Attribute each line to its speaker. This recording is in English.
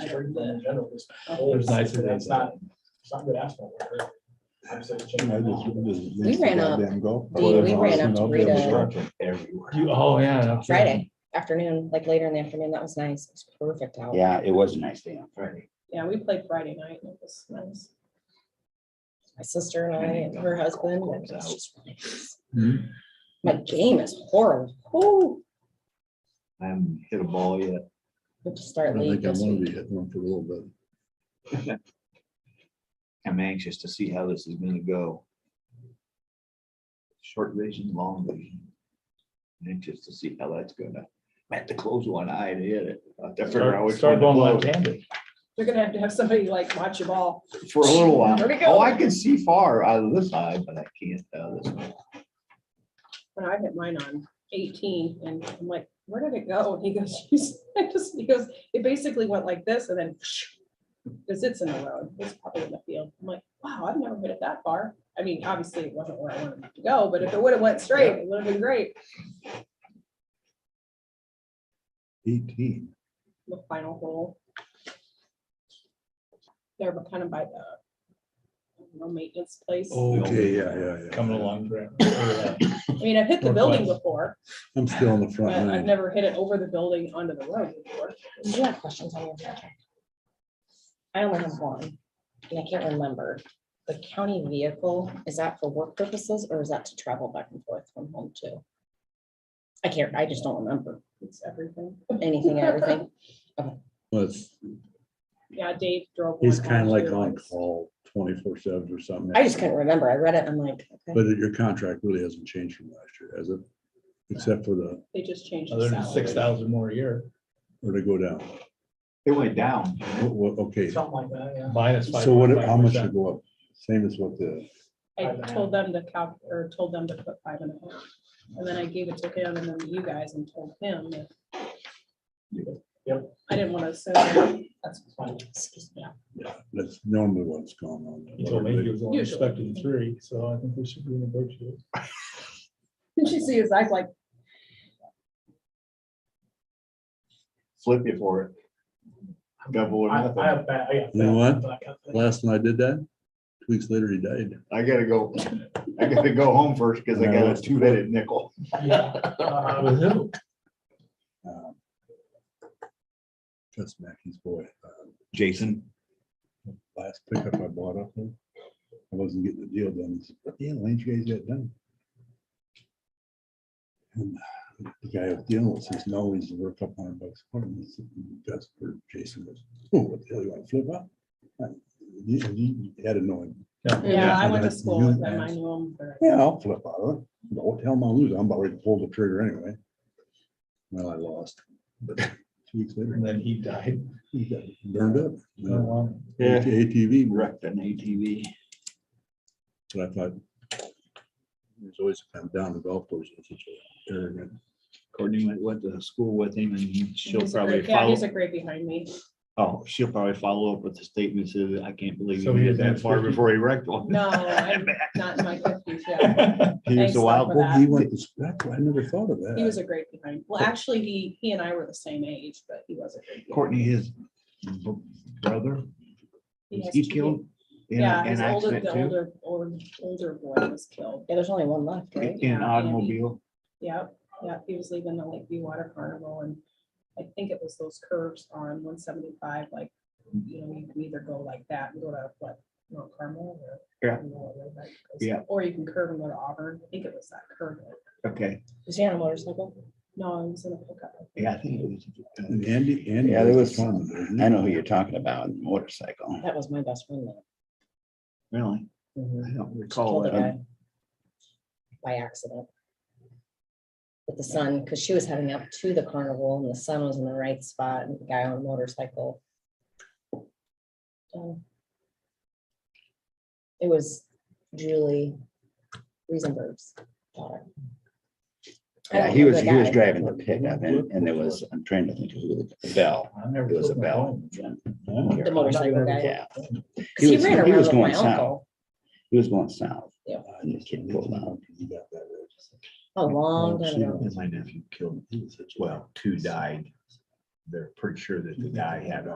Speaker 1: I heard
Speaker 2: In
Speaker 1: that.
Speaker 2: general, it's-
Speaker 3: There's nicer
Speaker 2: That's
Speaker 3: days.
Speaker 2: not, it's not good asphalt. work, right? I'm saying change
Speaker 4: I
Speaker 2: it
Speaker 4: just-
Speaker 2: now.
Speaker 4: just-
Speaker 5: We ran up-
Speaker 4: goddamn golf
Speaker 5: Dean,
Speaker 4: cart.
Speaker 5: we ran up to
Speaker 4: Up there,
Speaker 5: Rita.
Speaker 4: destruction.
Speaker 3: You, oh, yeah. no kidding.
Speaker 5: Friday afternoon, like later in the afternoon. That was nice. It was perfect out.
Speaker 6: Yeah, it was a nice day on Friday.
Speaker 1: Yeah, we played Friday night. and It was nice.
Speaker 5: My sister and I and her husband. and it was just really nice.
Speaker 3: Hmm.
Speaker 5: My game is horrible. Woo.
Speaker 6: I haven't hit a ball yet.
Speaker 5: We'll just
Speaker 4: I
Speaker 5: start
Speaker 4: don't
Speaker 5: league
Speaker 4: think I'm
Speaker 5: this
Speaker 4: gonna
Speaker 5: week.
Speaker 4: be hitting one for a little bit.
Speaker 6: I'm anxious to see how this is gonna go. Short vision, long vision. I'm Anxious to see how that's gonna, I had to close one eye to hit it. I'll have to figure out
Speaker 3: Start
Speaker 6: which
Speaker 3: start
Speaker 6: one
Speaker 3: going
Speaker 6: to
Speaker 3: left
Speaker 6: blow
Speaker 3: handed.
Speaker 1: You're gonna have to have somebody like watch your ball.
Speaker 6: For a little while.
Speaker 1: There we go.
Speaker 6: Oh, I can see far out of this eye, but I can't out of this one.
Speaker 1: When I hit mine on eighteen and I'm like, where did it go? And he goes, "You s- I just, he goes, it basically went like this and then because it's in the road, it's probably in the field. I'm like, wow, I've never hit it that far. I mean, obviously it wasn't where I wanted it to go, but if it would have went straight, it would have been great.
Speaker 4: Eighteen.
Speaker 1: The final hole. There, but kind of by the I don't know, maintenance place.
Speaker 4: Okay, yeah, yeah, yeah.
Speaker 3: Coming along. for-
Speaker 1: I mean, I've hit the building
Speaker 3: Northwest.
Speaker 1: before,
Speaker 4: I'm still on the
Speaker 1: but
Speaker 4: front
Speaker 6: Mm.
Speaker 1: I've
Speaker 4: line.
Speaker 1: never hit it over the building onto the road before.
Speaker 5: Did you have questions on your contract? I only have one, and I can't remember. The county vehicle, is that for work purposes or is that to travel back and forth from home too? I can't, I just don't remember
Speaker 1: It's everything.
Speaker 5: anything, and everything.
Speaker 4: Well, it's-
Speaker 1: Yeah, Dave drove.
Speaker 4: He's
Speaker 1: one
Speaker 4: kind of
Speaker 1: last
Speaker 4: like
Speaker 1: year
Speaker 4: on
Speaker 1: once.
Speaker 4: call twenty-four seven or something.
Speaker 5: I just couldn't remember. I read it, I'm like, okay.
Speaker 4: But your contract really hasn't changed from last year, has it? Except for the,
Speaker 1: They just
Speaker 6: Oh,
Speaker 1: changed
Speaker 3: Other
Speaker 1: the
Speaker 3: than six
Speaker 1: salary.
Speaker 3: thousand more a year,
Speaker 4: or to go down.
Speaker 6: It went down.
Speaker 4: What- what- Okay, so
Speaker 2: Something like that, yeah.
Speaker 3: minus five.
Speaker 4: what,
Speaker 3: point
Speaker 4: how
Speaker 3: five
Speaker 4: much
Speaker 3: percent.
Speaker 4: should go up? Same as what the,
Speaker 1: I told them to calc, or told them to put five and a half. And then I gave it to him and then to you guys and told him. that-
Speaker 2: Yep.
Speaker 1: I didn't want to assume.
Speaker 2: That's fine.
Speaker 4: yeah, that's normally what's going on.
Speaker 3: He told me he was only
Speaker 1: Usually.
Speaker 3: expecting three, so I think we should renegotiate.
Speaker 1: Didn't you see his eyes like,
Speaker 6: Flip you for it. Double or
Speaker 2: I I
Speaker 6: nothing.
Speaker 2: have bad, I got.
Speaker 4: You know what?
Speaker 2: bad-
Speaker 4: Last time I did that, two weeks later, he died.
Speaker 6: I gotta go, I gotta go home first because I got a two-headed nickel.
Speaker 2: Yeah. Uh,
Speaker 3: With who?
Speaker 4: um, That's Mackey's boy. Uh,
Speaker 6: Jason.
Speaker 4: Last pickup I bought up there. I wasn't getting the deal done. He said, Yeah, why didn't you guys get it done? And The guy was dealing with says, no, he's worth a couple hundred bucks. more." And he said, That's where Jason goes, oh, what the hell, you want to flip up? Uh, You, you you had to know him.
Speaker 1: yeah, I
Speaker 4: I
Speaker 1: went to
Speaker 4: know.
Speaker 1: school with them. I knew him. for-
Speaker 4: Yeah, I'll flip out of it. No, what the hell am I losing? I'm about ready to pull the trigger anyway. Well, I lost. But two weeks later,
Speaker 3: And then he died.
Speaker 4: he got burned up.
Speaker 3: No, um,
Speaker 6: Yeah.
Speaker 4: ATV,
Speaker 6: Wrecked an ATV.
Speaker 4: but I thought. There's always a time down the golf course. it's such an arrogant-
Speaker 6: uh, Courtney went, went to school with him and she'll
Speaker 1: He's a
Speaker 6: probably
Speaker 1: great- Yeah,
Speaker 6: follow,
Speaker 1: he's a great behind me.
Speaker 6: oh, she'll probably follow up with the statement says, I can't believe he
Speaker 3: So he
Speaker 6: went
Speaker 3: didn't
Speaker 6: that far
Speaker 3: have-
Speaker 6: before he wrecked one.
Speaker 1: No, I'm not in my fifties yet.
Speaker 6: He was
Speaker 1: Thanks,
Speaker 6: a wild,
Speaker 1: Lord, for
Speaker 4: Well, He went to spec, I never thought of
Speaker 1: He was
Speaker 4: that.
Speaker 1: a great behind. Well, actually, he, he and I were the same age, but he was a great. behind.
Speaker 6: Courtney, his b- brother,
Speaker 1: He
Speaker 6: was
Speaker 1: has
Speaker 6: he
Speaker 1: two
Speaker 6: killed? in a-
Speaker 1: Yeah,
Speaker 6: in
Speaker 1: his
Speaker 6: an
Speaker 1: older,
Speaker 6: accident
Speaker 1: the
Speaker 6: too?
Speaker 1: older, older, older boy was killed.
Speaker 5: Yeah, there's only one left, right?
Speaker 6: In an
Speaker 1: yeah,
Speaker 6: automobile.
Speaker 1: Yep, yep, he was leaving the Lakeview Water Carnival and I think it was those curves on one seventy-five, like, you know, you can either go like that and go to what, Mount Carmel or.
Speaker 6: Yeah.
Speaker 1: I don't know what road that goes.
Speaker 6: Yeah.
Speaker 1: Or you can curve and go to Auburn. I think it was that curve.
Speaker 6: Okay,
Speaker 5: Was he on a motorcycle?
Speaker 1: No, it was in a pickup.
Speaker 6: yeah, I think it was. uh,
Speaker 4: And Andy, Andy.
Speaker 6: Yeah, there was-
Speaker 4: one. wasn't he?
Speaker 6: I know who you're talking about, motorcycle.
Speaker 5: That was my best friend. then.
Speaker 6: Really?
Speaker 5: Mhm.
Speaker 6: I don't recall
Speaker 5: Killed a
Speaker 6: that.
Speaker 5: guy By accident. With the sun, because she was heading up to the carnival and the sun was in the right spot and the guy on a motorcycle. Um, It was Julie Riesenberg's daughter. I
Speaker 6: Yeah,
Speaker 5: don't
Speaker 6: he was,
Speaker 5: remember
Speaker 6: he was
Speaker 5: guy.
Speaker 6: driving the pickup and, and there was, I'm trying to think of who the bell,
Speaker 3: I never
Speaker 6: it was a
Speaker 3: took my
Speaker 6: bell.
Speaker 3: phone.
Speaker 5: The motorcycle guy.
Speaker 6: Yeah,
Speaker 5: 'Cause
Speaker 6: he
Speaker 5: he
Speaker 6: was-
Speaker 5: ran
Speaker 6: he
Speaker 5: around
Speaker 6: was
Speaker 5: with my
Speaker 6: going south.
Speaker 5: uncle
Speaker 6: he was going south. Uh,
Speaker 5: Yeah.
Speaker 6: And the kid pulled out.
Speaker 4: You got that right.
Speaker 5: a long time ago.
Speaker 6: And my nephew killed, well, two died. They're pretty sure that the guy had a